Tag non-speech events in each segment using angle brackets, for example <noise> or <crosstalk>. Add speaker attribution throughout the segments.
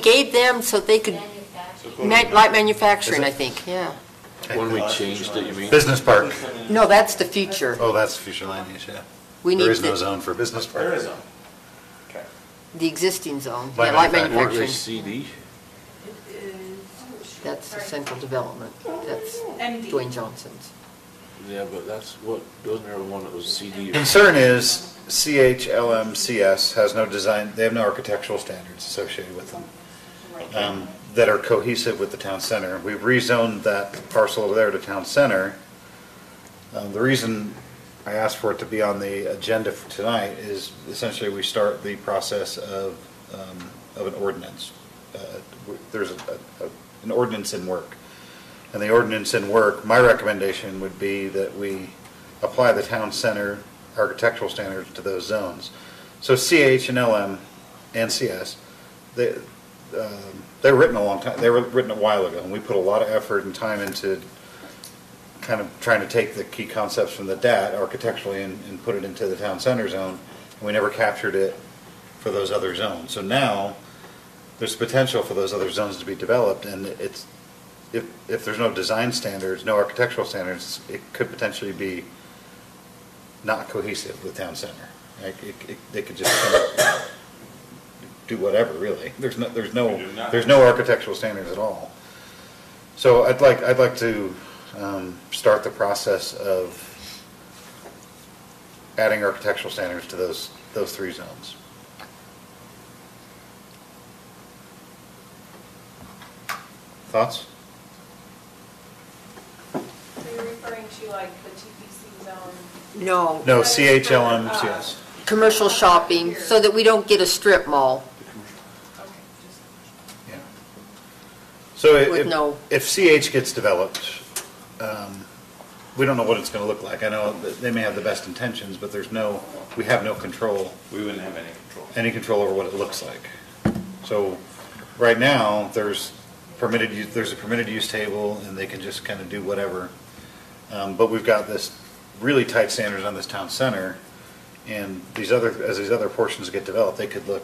Speaker 1: gave them so they could, man- light manufacturing, I think, yeah.
Speaker 2: When we changed it, you mean?
Speaker 3: Business park.
Speaker 1: No, that's the future.
Speaker 3: Oh, that's future land use, yeah.
Speaker 1: We need
Speaker 3: There is no
Speaker 1: the,
Speaker 3: zone for business park.
Speaker 4: There is a, okay.
Speaker 1: the existing zone,
Speaker 3: Light
Speaker 1: yeah, light
Speaker 3: manufacturing.
Speaker 2: Or
Speaker 1: manufacturing.
Speaker 2: CD?
Speaker 1: That's the central development, that's
Speaker 5: MD.
Speaker 1: Dwayne Johnson's.
Speaker 2: Yeah, but that's what, wasn't there one that was CD?
Speaker 3: Concern is CHLMCS has no design, they have no architectural standards associated with them um, that are cohesive with the town center. We've rezoned that parcel over there to town center. Um, The reason I asked for it to be on the agenda for tonight is essentially we start the process of, um, of an ordinance. Uh, w- There's a- a- a- an ordinance in work. And the ordinance in work, my recommendation would be that we apply the town center architectural standards to those zones. So CH and LM and CS, they, um, they were written a long time, they were written a while ago, and we put a lot of effort and time into kind of trying to take the key concepts from the DAT architecturally and, and put it into the town center zone, and we never captured it for those other zones. So now, there's potential for those other zones to be developed, and it's, if, if there's no design standards, no architectural standards, it could potentially be not cohesive with town center. Like, it, it, they could just kind of do whatever, really. There's no, there's no,
Speaker 4: We do not-
Speaker 3: there's no architectural standards at all. So I'd like, I'd like to, um, start the process of adding architectural standards to those, those three zones. Thoughts?
Speaker 5: So you're referring to like the TPC zone?
Speaker 1: No,
Speaker 3: No, CHLM, yes.
Speaker 1: commercial shopping, so that we don't get a strip mall.
Speaker 5: Okay, just.
Speaker 3: Yeah. So i-
Speaker 1: uh, With no-
Speaker 3: if, if CH gets developed, um, we don't know what it's gonna look like. I know that they may have the best intentions, but there's no, we have no control,
Speaker 4: We wouldn't have any control.
Speaker 3: any control over what it looks like. So, right now, there's permitted, use- there's a permitted use table, and they can just kind of do whatever. Um, but we've got this really tight standards on this town center, and these other, as these other portions get developed, they could look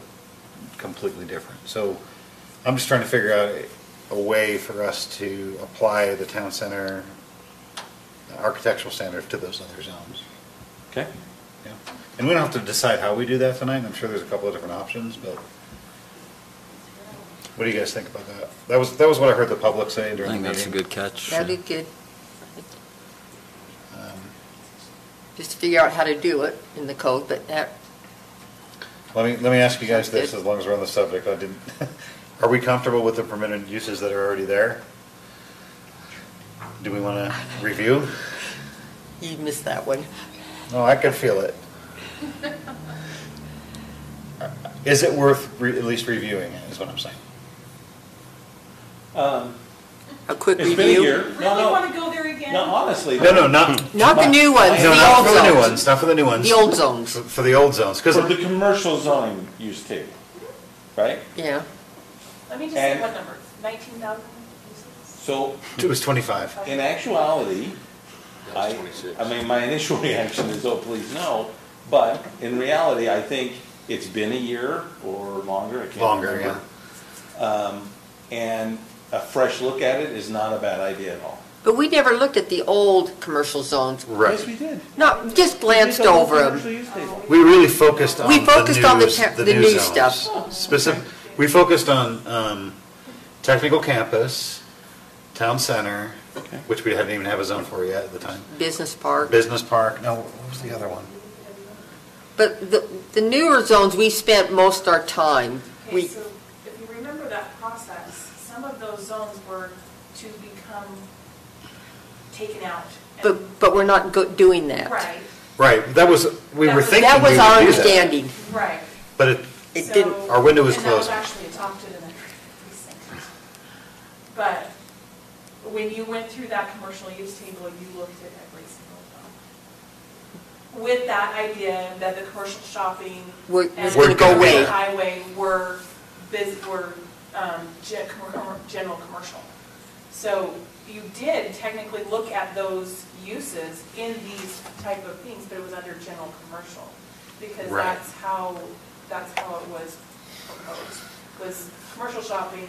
Speaker 3: completely different. So I'm just trying to figure out a way for us to apply the town center architectural standards to those other zones.
Speaker 2: Okay.
Speaker 3: Yeah, And we don't have to decide how we do that tonight, I'm sure there's a couple of different options, but what do you guys think about that? That was, that was what I heard the public say
Speaker 6: I
Speaker 3: during the
Speaker 6: think
Speaker 3: meeting.
Speaker 6: that's a good catch.
Speaker 1: That did good,
Speaker 3: Um,
Speaker 1: just to figure out how to do it in the code, but that,
Speaker 3: Let me, let me ask you guys
Speaker 1: Sounds
Speaker 3: this,
Speaker 1: good.
Speaker 3: as long as we're on the subject, I didn't, <laughs> are we comfortable with the permitted uses that are already there? Do we want to review?
Speaker 1: you missed that one.
Speaker 3: No, I can feel <laughs> it. Is it worth re- at least reviewing, it? Is what I'm saying?
Speaker 4: Um,
Speaker 1: A quick
Speaker 4: It's been a
Speaker 1: review.
Speaker 4: year.
Speaker 5: Really
Speaker 4: No, no,
Speaker 5: want to go there again?
Speaker 4: no, honestly.
Speaker 3: No, no, not,
Speaker 6: Hmm.
Speaker 1: Not the new ones,
Speaker 3: No,
Speaker 1: the
Speaker 3: not
Speaker 1: old
Speaker 3: for the new
Speaker 1: zones.
Speaker 3: ones, not for the new ones.
Speaker 1: The old zones.
Speaker 3: For- For the old zones, because,
Speaker 4: For the commercial zoning use table, right?
Speaker 1: Yeah,
Speaker 5: Let me just say
Speaker 4: And-
Speaker 5: one number, nineteen thousand pieces?
Speaker 4: So
Speaker 3: it was 25.
Speaker 4: in actuality,
Speaker 2: That was
Speaker 4: I,
Speaker 2: 26.
Speaker 4: I mean, my <laughs> initial reaction is, oh, please no. But in reality, I think it's been a year or longer, I can't remember.
Speaker 3: Longer, yeah.
Speaker 4: Um, and a fresh look at it is not a bad idea at all.
Speaker 1: but we never looked at the old commercial zones.
Speaker 3: Right.
Speaker 4: Yes, we did.
Speaker 1: Not, just glanced
Speaker 4: We did the whole
Speaker 1: over them.
Speaker 4: commercial use table.
Speaker 3: We really focused on
Speaker 1: We
Speaker 3: the
Speaker 1: focused on the
Speaker 3: news-
Speaker 1: te- the new
Speaker 3: zones.
Speaker 1: stuff.
Speaker 3: Specific, we focused on um, technical campus, town center, which we didn't even have a zone for yet at the time.
Speaker 1: business park.
Speaker 3: Business park, no, what was the other one?
Speaker 1: But the, the newer zones, we spent most our time.
Speaker 5: Okay,
Speaker 1: We,
Speaker 5: so if you remember that process, some of those zones were to become taken out. and-
Speaker 1: but, but we're not go- doing that.
Speaker 5: Right,
Speaker 3: Right, that was, we
Speaker 5: That
Speaker 3: were
Speaker 5: was-
Speaker 3: thinking
Speaker 1: That
Speaker 3: we would do
Speaker 1: was our
Speaker 3: that.
Speaker 1: understanding.
Speaker 5: right.
Speaker 3: But it,
Speaker 1: It
Speaker 5: So-
Speaker 1: didn't-
Speaker 3: Our window was closed.
Speaker 5: And that was actually adopted in the precinct. But when you went through that commercial use table, you looked at every single one. With that idea that the commercial shopping
Speaker 1: We're-
Speaker 5: and
Speaker 1: It's gonna go
Speaker 5: the
Speaker 1: away.
Speaker 5: Highway were, bus- were um, gen- com- general commercial. So you did technically look at those uses in these type of things, but it was under general commercial. Because
Speaker 3: Right.
Speaker 5: that's how, that's how it was proposed. was commercial shopping